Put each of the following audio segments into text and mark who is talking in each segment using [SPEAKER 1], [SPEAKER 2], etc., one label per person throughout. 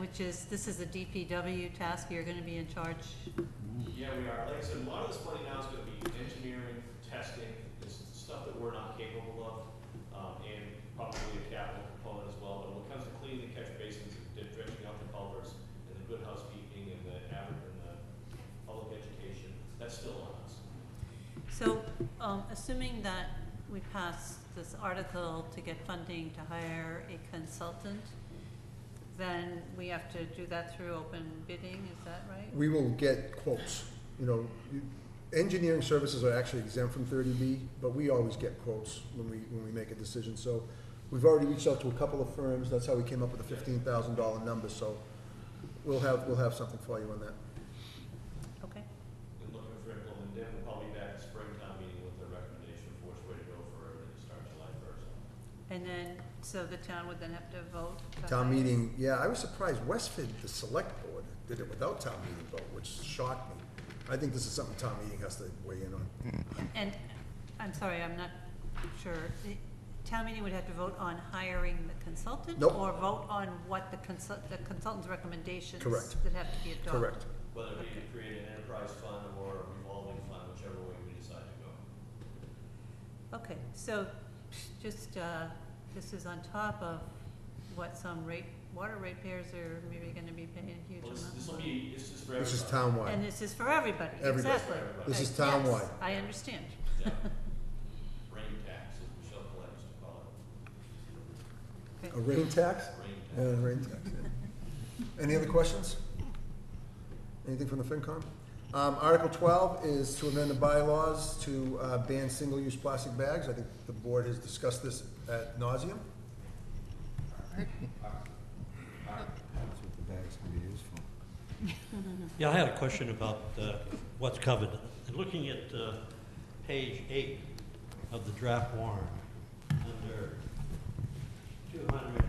[SPEAKER 1] which is, this is a DPW task, you're gonna be in charge.
[SPEAKER 2] Yeah, we are. Like I said, a lot of this money now is gonna be engineering, testing, it's stuff that we're not capable of, um, and probably a capital component as well. But when it comes to cleaning the catch basins, and dredging out the culverts, and the good housekeeping, and the average, and the public education, that's still on us.
[SPEAKER 1] So, um, assuming that we pass this article to get funding to hire a consultant, then we have to do that through open bidding, is that right?
[SPEAKER 3] We will get quotes, you know, you- engineering services are actually exempt from thirty B, but we always get quotes when we, when we make a decision, so we've already reached out to a couple of firms, that's how we came up with the fifteen thousand dollar number, so we'll have, we'll have something for you on that.
[SPEAKER 1] Okay,
[SPEAKER 2] And looking for implement, then we'll probably be back at springtime meeting with a recommendation for which way to go for everything to start July first.
[SPEAKER 1] and then, so the town would then have to vote? to
[SPEAKER 3] Town
[SPEAKER 1] hire?
[SPEAKER 3] meeting, yeah, I was surprised, Westford, the select board, did it without town meeting vote, which shocked me. I think this is something town meeting has to weigh in on.
[SPEAKER 1] And, I'm sorry, I'm not sure, the town meeting would have to vote on hiring the consultant?
[SPEAKER 3] Nope.
[SPEAKER 1] Or vote on what the consult, the consultant's recommendations?
[SPEAKER 3] Correct.
[SPEAKER 1] That have to be adopted?
[SPEAKER 3] Correct.
[SPEAKER 2] Whether it be to create an enterprise fund or a revolving fund, whichever way we decide to go.
[SPEAKER 1] Okay, so, just, uh, this is on top of what some rate, water rate payers are maybe gonna be paying a huge
[SPEAKER 2] Well,
[SPEAKER 1] amount.
[SPEAKER 2] this, this
[SPEAKER 1] of
[SPEAKER 2] will
[SPEAKER 1] money.
[SPEAKER 2] be, this is for
[SPEAKER 3] This is
[SPEAKER 2] everybody.
[SPEAKER 1] And
[SPEAKER 3] townwide.
[SPEAKER 1] this is for everybody,
[SPEAKER 3] Everybody.
[SPEAKER 1] exactly.
[SPEAKER 3] This is
[SPEAKER 1] Uh, yes,
[SPEAKER 3] townwide.
[SPEAKER 1] I understand.
[SPEAKER 2] Yeah. Rain tax, as Michelle Collins would call it,
[SPEAKER 1] Okay.
[SPEAKER 3] A rain tax?
[SPEAKER 2] rain
[SPEAKER 3] Yeah,
[SPEAKER 2] tax.
[SPEAKER 3] rain tax, yeah. Any other questions? Anything from the FinCom? Um, Article twelve is to amend the bylaws to, uh, ban single-use plastic bags. I think the board has discussed this at nauseum.
[SPEAKER 4] That's what the bag's gonna be used for.
[SPEAKER 5] Yeah, I had a question about uh, what's covered. And Looking at uh, page eight of the draft warrant, under two hundred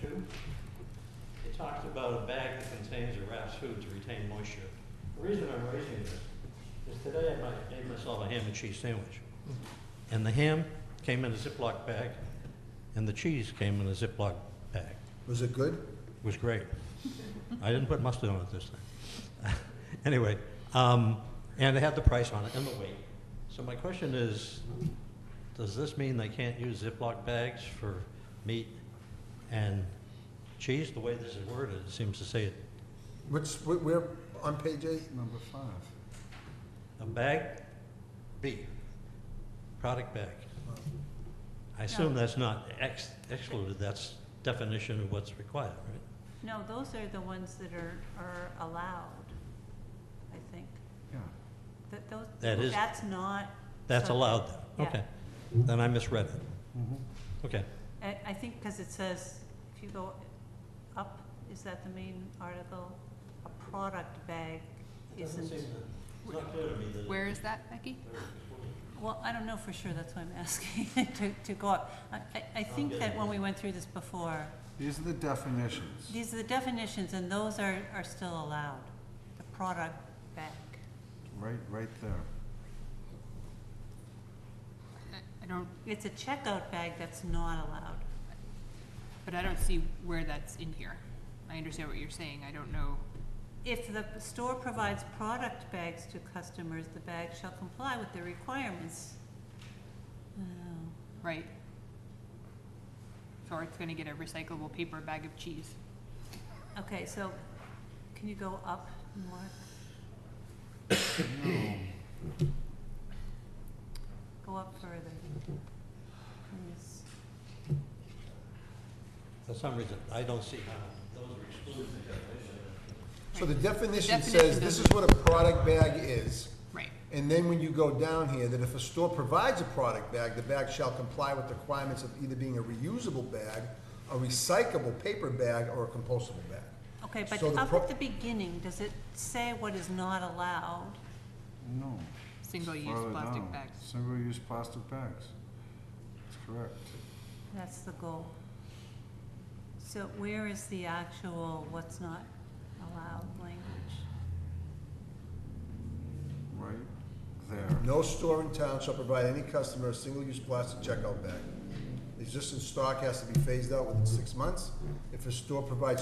[SPEAKER 5] two, it talks about a bag that contains a wrapped food to retain moisture. The reason I'm raising this is today I might- made myself a ham and cheese sandwich. And the ham came in a Ziploc bag, and the cheese came in a Ziploc bag
[SPEAKER 3] Was it good?
[SPEAKER 5] was great. I didn't put mustard on it this time. anyway, um, and they had the price on it and the weight. So my question is, does this mean they can't use Ziploc bags for meat and cheese? The way this is worded, it seems to say it,
[SPEAKER 3] Which, we- we're on page eight?
[SPEAKER 4] Number five.
[SPEAKER 5] a bag, B, product bag. I assume that's not ex- excluded. That's definition of what's required, right?
[SPEAKER 1] No, those are the ones that are, are allowed, I think.
[SPEAKER 4] Yeah.
[SPEAKER 1] That those,
[SPEAKER 5] That is-
[SPEAKER 1] that's not,
[SPEAKER 5] That's
[SPEAKER 1] So-
[SPEAKER 5] allowed then?
[SPEAKER 1] yeah.
[SPEAKER 5] Okay. Then I misread it. Okay.
[SPEAKER 1] I, I think because it says, if you go up, is that the main article? A product bag isn't,
[SPEAKER 5] It's not clear to me that.
[SPEAKER 6] Where is that, Becky?
[SPEAKER 1] well, I don't know for sure, that's why I'm asking to, to go up. I, I, I think that when we went through this before,
[SPEAKER 4] These are the definitions.
[SPEAKER 1] these are the definitions and those are, are still allowed. The product bag.
[SPEAKER 4] Right, right there.
[SPEAKER 6] I- I don't,
[SPEAKER 1] It's a checkout bag that's not allowed.
[SPEAKER 6] but I don't see where that's in here. I understand what you're saying, I don't know.
[SPEAKER 1] If the store provides product bags to customers, the bag shall comply with the requirements. Oh.
[SPEAKER 6] Right. So it's gonna get a recyclable paper bag of cheese.
[SPEAKER 1] Okay, so can you go up more? Go up further. Please.
[SPEAKER 5] For some reason, I don't see how those are excluded.
[SPEAKER 3] So the definition says,
[SPEAKER 6] Definition
[SPEAKER 3] this is
[SPEAKER 6] doesn't-
[SPEAKER 3] what a product bag is.
[SPEAKER 6] Right.
[SPEAKER 3] And then when you go down here, that if a store provides a product bag, the bag shall comply with the requirements of either being a reusable bag, a recyclable paper bag, or a compostable bag.
[SPEAKER 1] Okay, but
[SPEAKER 3] So the
[SPEAKER 1] up
[SPEAKER 3] pro-
[SPEAKER 1] at the beginning, does it say what is not allowed?
[SPEAKER 4] No. further
[SPEAKER 6] Single-use plastic
[SPEAKER 4] down.
[SPEAKER 6] bags.
[SPEAKER 4] Single-use plastic bags. That's correct.
[SPEAKER 1] That's the goal. So where is the actual what's not allowed language?
[SPEAKER 4] Right there.
[SPEAKER 3] No store in town shall provide any customer a single-use plastic checkout bag. Existing stock has to be phased out within six months. If a store provides